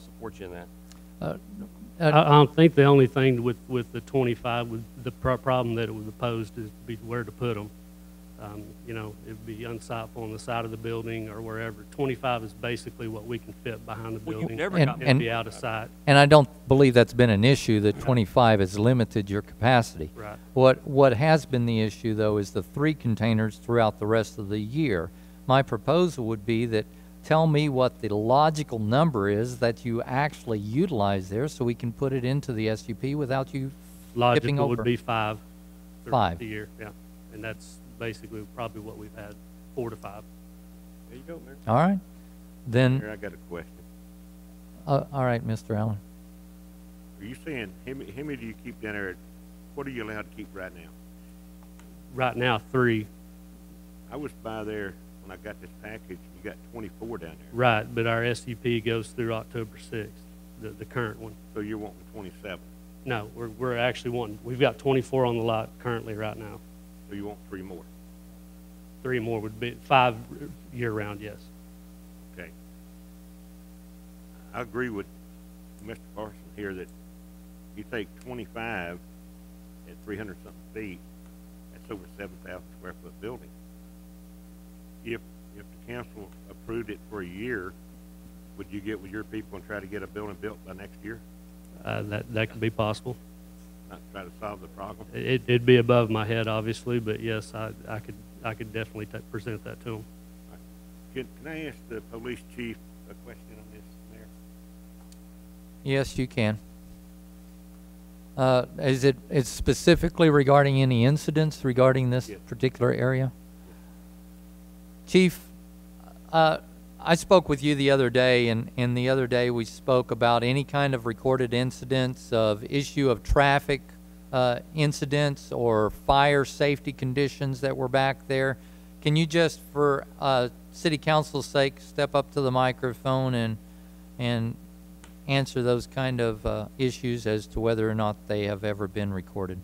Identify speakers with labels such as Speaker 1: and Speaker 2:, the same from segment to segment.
Speaker 1: support you in that.
Speaker 2: I, I don't think the only thing with, with the twenty-five, with the pro- problem that it was opposed is be where to put them. Um, you know, it'd be unsightful on the side of the building or wherever. Twenty-five is basically what we can fit behind the
Speaker 1: Well,
Speaker 2: building.
Speaker 1: you've never
Speaker 3: And-
Speaker 1: gotten.
Speaker 2: It'd be out of sight,
Speaker 3: And I don't believe that's been an issue, that 25 has limited your capacity.
Speaker 2: right.
Speaker 3: What, what has been the issue, though, is the three containers throughout the rest of the year. My proposal would be that, tell me what the logical number is that you actually utilize there, so we can put it into the SUP without you,
Speaker 2: Logical
Speaker 3: over.
Speaker 2: would be five. throughout
Speaker 3: Five.
Speaker 2: The year, yeah. And that's basically probably what we've had, four to five.
Speaker 1: There you go, Mayor.
Speaker 3: all right? Then,
Speaker 4: Here, I got a question.
Speaker 3: uh, all right, Mr. Allen.
Speaker 4: Are you saying, how many, how many do you keep down there? What are you allowed to keep right now?
Speaker 2: Right now, three,
Speaker 4: I was by there when I got this package, and you got twenty-four down there,
Speaker 2: right, but our SUP goes through October sixth, the, the current one.
Speaker 4: so you're wanting twenty-seven,
Speaker 2: No, we're, we're actually wanting, we've got 24 on the lot currently right now.
Speaker 4: so you want three more,
Speaker 2: Three more would be, five year-round, yes.
Speaker 4: okay? I agree with Mr. Carson here that you take twenty-five at three hundred something feet, that's over seven thousand square foot building. If, if the council approved it for a year, would you get with your people and try to get a building built by next year?
Speaker 2: Uh, That, that could be possible.
Speaker 4: not try to solve the problem.
Speaker 2: It, it'd be above my head, obviously, but yes, I, I could, I could definitely ta- present that to them.
Speaker 4: Can, can I ask the police chief a question on this, Mayor?
Speaker 3: Yes, you can. Uh, Is it, it's specifically regarding any incidents regarding this
Speaker 4: Yes.
Speaker 3: particular area? Chief, uh, I spoke with you the other day, and, and the other day we spoke about any kind of recorded incidents of issue of traffic uh, incidents or fire safety conditions that were back there. Can you just, for uh, city council's sake, step up to the microphone and, and answer those kind of uh, issues as to whether or not they have ever been recorded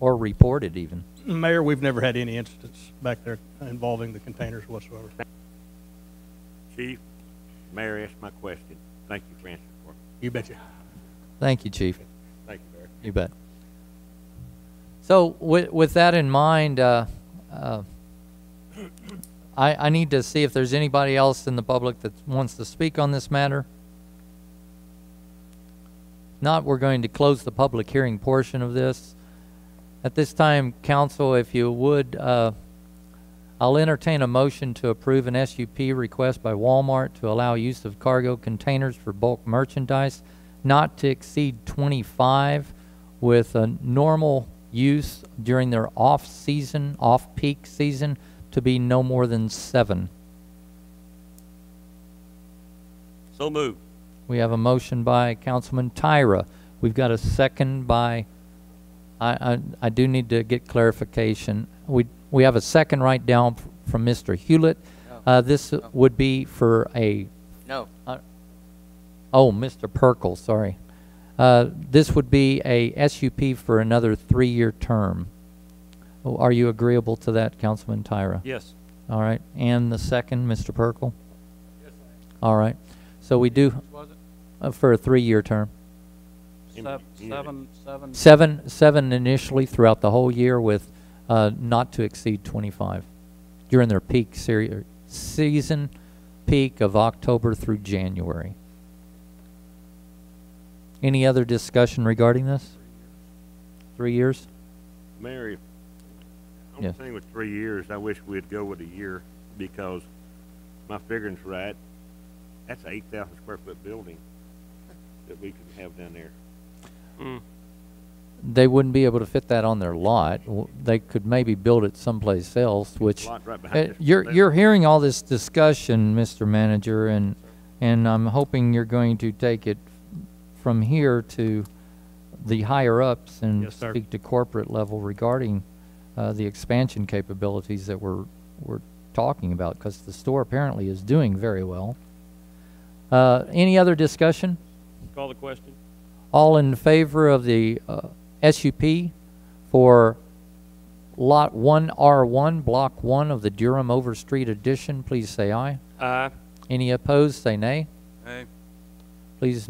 Speaker 3: or reported even?
Speaker 5: Mayor, we've never had any incidents back there involving the containers whatsoever.
Speaker 4: Chief, Mayor asked my question. Thank you for answering for me.
Speaker 5: You betcha.
Speaker 3: Thank you, Chief.
Speaker 4: Thank you, Mayor.
Speaker 3: You bet. So with, with that in mind, uh, uh, I, I need to see if there's anybody else in the public that wants to speak on this matter. Not, we're going to close the public hearing portion of this. At this time, council, if you would, uh, I'll entertain a motion to approve an SUP request by Walmart to allow use of cargo containers for bulk merchandise not to exceed 25 with a normal use during their off-season, off-peak season to be no more than seven.
Speaker 1: So moved.
Speaker 3: We have a motion by Councilman Tyra. We've got a second by, I, I, I do need to get clarification. We, we have a second right down f- from Mr. Hewlett. Uh, this would be for a, uh,
Speaker 6: No,
Speaker 3: oh, Mr. Perkel, sorry. Uh, this would be a SUP for another three-year term. Oh, Are you agreeable to that, Councilman Tyra?
Speaker 1: Yes.
Speaker 3: All right, and the second, Mr. Perkel? All right, so we do,
Speaker 6: was it
Speaker 3: uh, for a three-year term.
Speaker 4: Seven-
Speaker 6: seven, seven, seven?
Speaker 3: Seven, seven initially throughout the whole year with uh, not to exceed 25 during their peak seri- er, season peak of October through January. Any other discussion regarding this? Three years?
Speaker 4: Mayor, if- I'm
Speaker 3: Yes.
Speaker 4: saying with three years, I wish we'd go with a year because my figuring's right. That's an eight thousand square foot building that we could have down there.
Speaker 3: They wouldn't be able to fit that on their lot. W- They could maybe build it someplace else, which.
Speaker 4: Lot right
Speaker 3: Uh,
Speaker 4: behind this.
Speaker 3: You're,
Speaker 4: building.
Speaker 3: you're hearing all this discussion, Mr. Manager, and, and I'm hoping you're going to take it from here to the higher-ups and
Speaker 2: Yes, sir.
Speaker 3: speak to corporate level regarding uh, the expansion capabilities that we're, we're talking about, because the store apparently is doing very well. Uh, Any other discussion?
Speaker 1: Call the question.
Speaker 3: All in favor of the uh, SUP for Lot 1R1, Block 1 of the Durham Overstreet Edition, please say aye.
Speaker 1: Aye.
Speaker 3: Any opposed, say nay. please